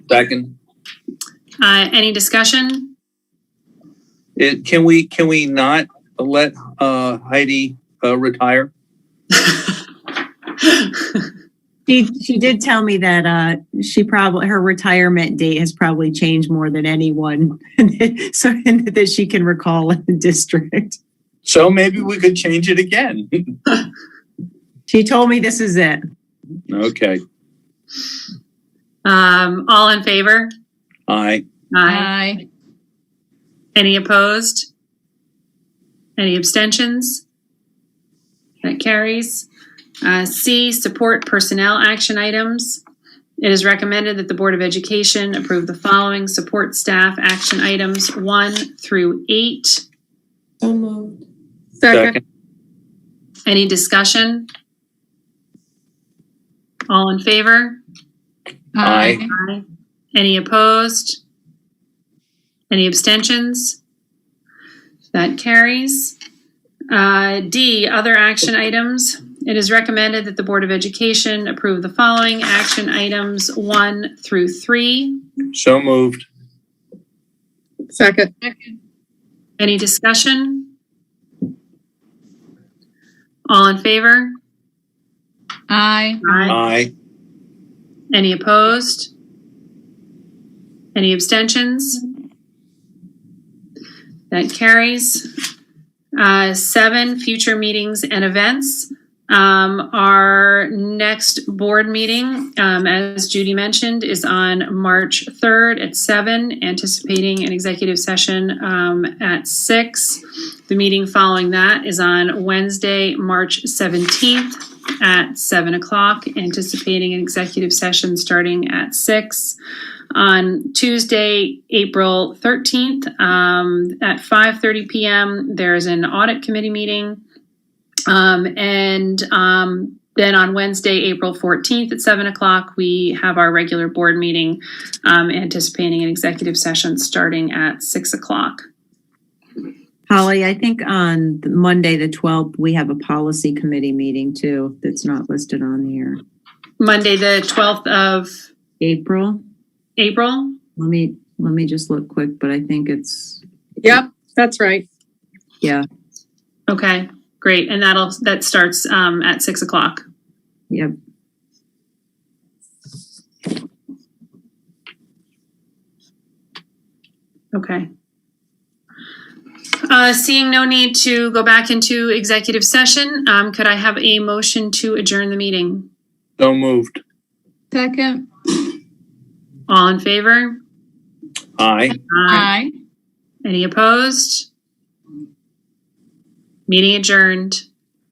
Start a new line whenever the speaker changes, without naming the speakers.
Second.
Uh, any discussion?
It, can we, can we not let uh, Heidi uh, retire?
She, she did tell me that uh, she probably her retirement date has probably changed more than anyone, so that she can recall in the district.
So maybe we could change it again.
She told me this is it.
Okay,
Um, all in favor?
aye.
Aye. Any opposed? Any abstentions? That carries. Uh, C, support personnel action items. It is recommended that the Board of Education approve the following support staff action items one through eight.
So moved.
Second.
Any discussion? All in favor?
Aye.
Aye. Any opposed? Any abstentions? That carries. Uh, D, other action items. It is recommended that the Board of Education approve the following action items one through three.
So moved.
Second.
Any discussion? All in favor?
Aye.
Aye.
Any opposed? Any abstentions? That carries. Uh, Seven, future meetings and events. Um, Our next board meeting, um, as Judy mentioned, is on March 3rd at seven. anticipating an executive session um, at six. The meeting following that is on Wednesday, March 17th at seven o'clock, anticipating an executive session starting at six. On Tuesday, April thirteenth, um, at five thirty PM, there's an audit committee meeting. Um, and, um, then on Wednesday, April fourteenth at seven o'clock, we have our regular board meeting, um, anticipating an executive session starting at six o'clock.
Holly, I think on the Monday the twelfth we have a policy committee meeting too. That's not listed on here.
Monday, the twelfth of
April.
April,
Let me let me just look quick, but I think it's
Yep, that's right.
yeah
Okay, great. And that'll, that starts um, at six o'clock.
yep.
Okay. Uh, seeing no need to go back into executive session, um, could I have a motion to adjourn the meeting?
So moved.
Second.
All in favor?
Aye.
Aye.
Any opposed? Meeting adjourned.